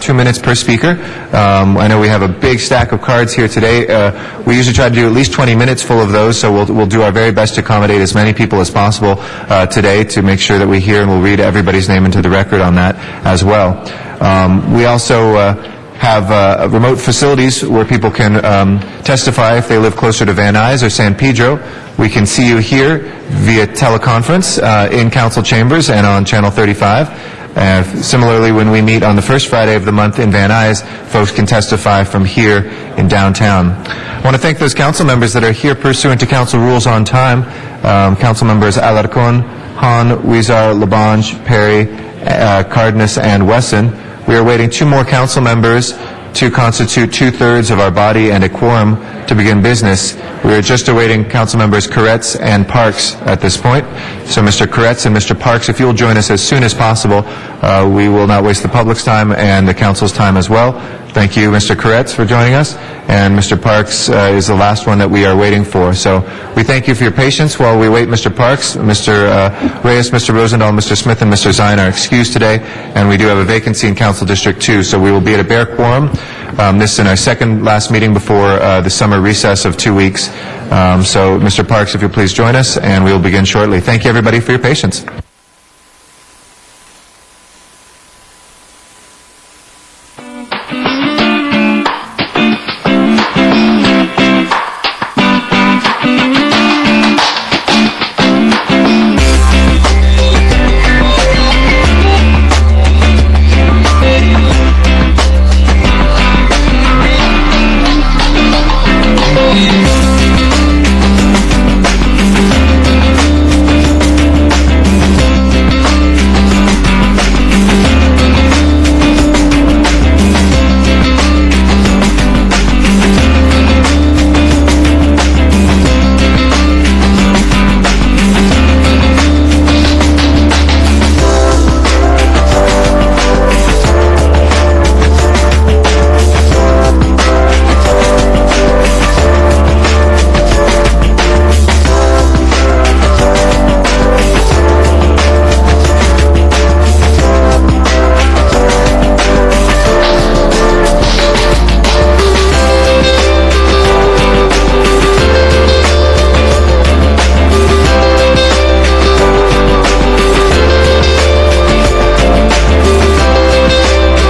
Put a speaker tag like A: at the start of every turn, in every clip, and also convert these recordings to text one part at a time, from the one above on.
A: Two minutes per speaker. Um, I know we have a big stack of cards here today. Uh, we usually try to do at least 20 minutes full of those, so we'll, we'll do our very best to accommodate as many people as possible uh, today to make sure that we hear and we'll read everybody's name into the record on that as well. Um, we also uh, have uh, remote facilities where people can um, testify if they live closer to Van Nuys or San Pedro. We can see you here via teleconference uh, in council chambers and on Channel 35. And similarly, when we meet on the first Friday of the month in Van Nuys, folks can testify from here in downtown. I want to thank those council members that are here pursuant to council rules on time. Um, council members Alarcon, Han, Weezar, Labange, Perry, uh, Cardenas, and Wesson. We are waiting two more council members to constitute two-thirds of our body and a quorum to begin business. We are just awaiting council members Corretz and Parks at this point. So Mr. Corretz and Mr. Parks, if you'll join us as soon as possible, uh, we will not waste the public's time and the council's time as well. Thank you, Mr. Corretz, for joining us, and Mr. Parks uh, is the last one that we are waiting for. So we thank you for your patience while we wait Mr. Parks, Mr. uh, Reyes, Mr. Rosendahl, Mr. Smith, and Mr. Zine are excused today, and we do have a vacancy in Council District 2, so we will be at a bare quorum. Um, This is our second last meeting before uh, the summer recess of two weeks. Um, So, Mr. Parks, if you'll please join us, and we will begin shortly. Thank you, everybody, for your patience.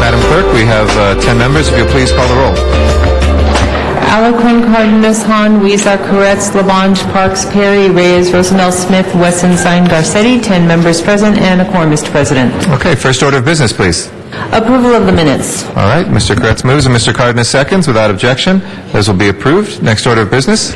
A: Madam Clerk, we have uh, 10 members. If you'll please call the roll.
B: Alarcon, Cardenas, Han, Weezer, Corretz, Labange, Parks, Perry, Reyes, Rosendahl, Smith, Wesson, Zine, Garcetti, 10 members present and a quorum, Mr. President.
A: Okay, first order of business, please.
B: Approval of the minutes.
A: All right, Mr. Kretz moves and Mr. Cardenas seconds without objection. Those will be approved. Next order of business.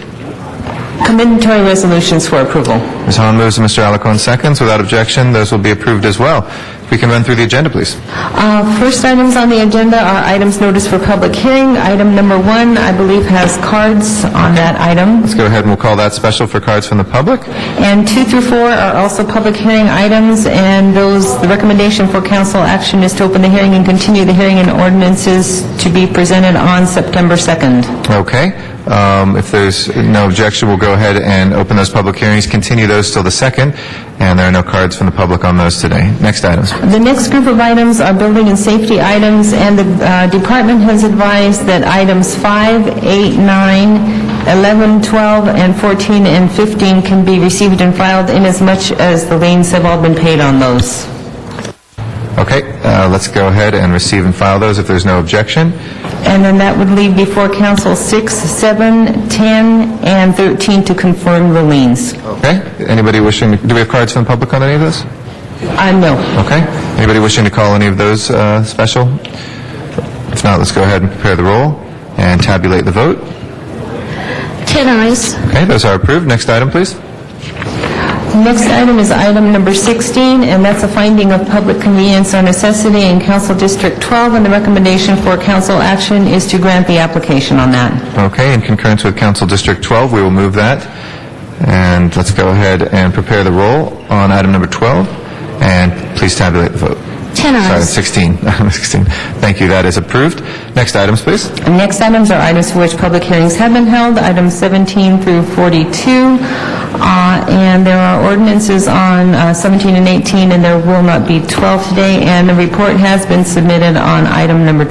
B: Commendatory resolutions for approval.
A: Ms. Hahn moves and Mr. Alacon seconds without objection. Those will be approved as well. If we can run through the agenda, please.
B: Uh, First items on the agenda are items noticed for public hearing. Item number one, I believe, has cards on that item.
A: Let's go ahead and we'll call that special for cards from the public.
B: And two through four are also public hearing items, and those, the recommendation for council action is to open the hearing and continue the hearing and ordinances to be presented on September 2nd.
A: Okay. Um, If there's no objection, we'll go ahead and open those public hearings, continue those till the second, and there are no cards from the public on those today. Next items.
B: The next group of items are building and safety items, and the uh, department has advised that items 5, 8, 9, 11, 12, and 14, and 15 can be received and filed inasmuch as the liens have all been paid on those.
A: Okay, uh, let's go ahead and receive and file those if there's no objection.
B: And then that would leave before council 6, 7, 10, and 13 to confirm the liens.
A: Okay? Anybody wishing, do we have cards from the public on any of those?
B: Uh, No.
A: Okay. Anybody wishing to call any of those uh, special? If not, let's go ahead and prepare the roll and tabulate the vote.
C: 10 eyes.
A: Okay, those are approved. Next item, please.
B: Next item is item number 16, and that's a finding of public convenience or necessity in Council District 12, and the recommendation for council action is to grant the application on that.
A: Okay, in concurrence with Council District 12, we will move that. And let's go ahead and prepare the roll on item number 12, and please tabulate the vote.
C: 10
A: Sorry,
C: eyes.
A: 16. 16. Thank you, that is approved. Next items, please.
B: Next items are items for which public hearings have been held, items 17 through 42, Uh, and there are ordinances on uh, 17 and 18, and there will not be 12 today, and the report has been submitted on item number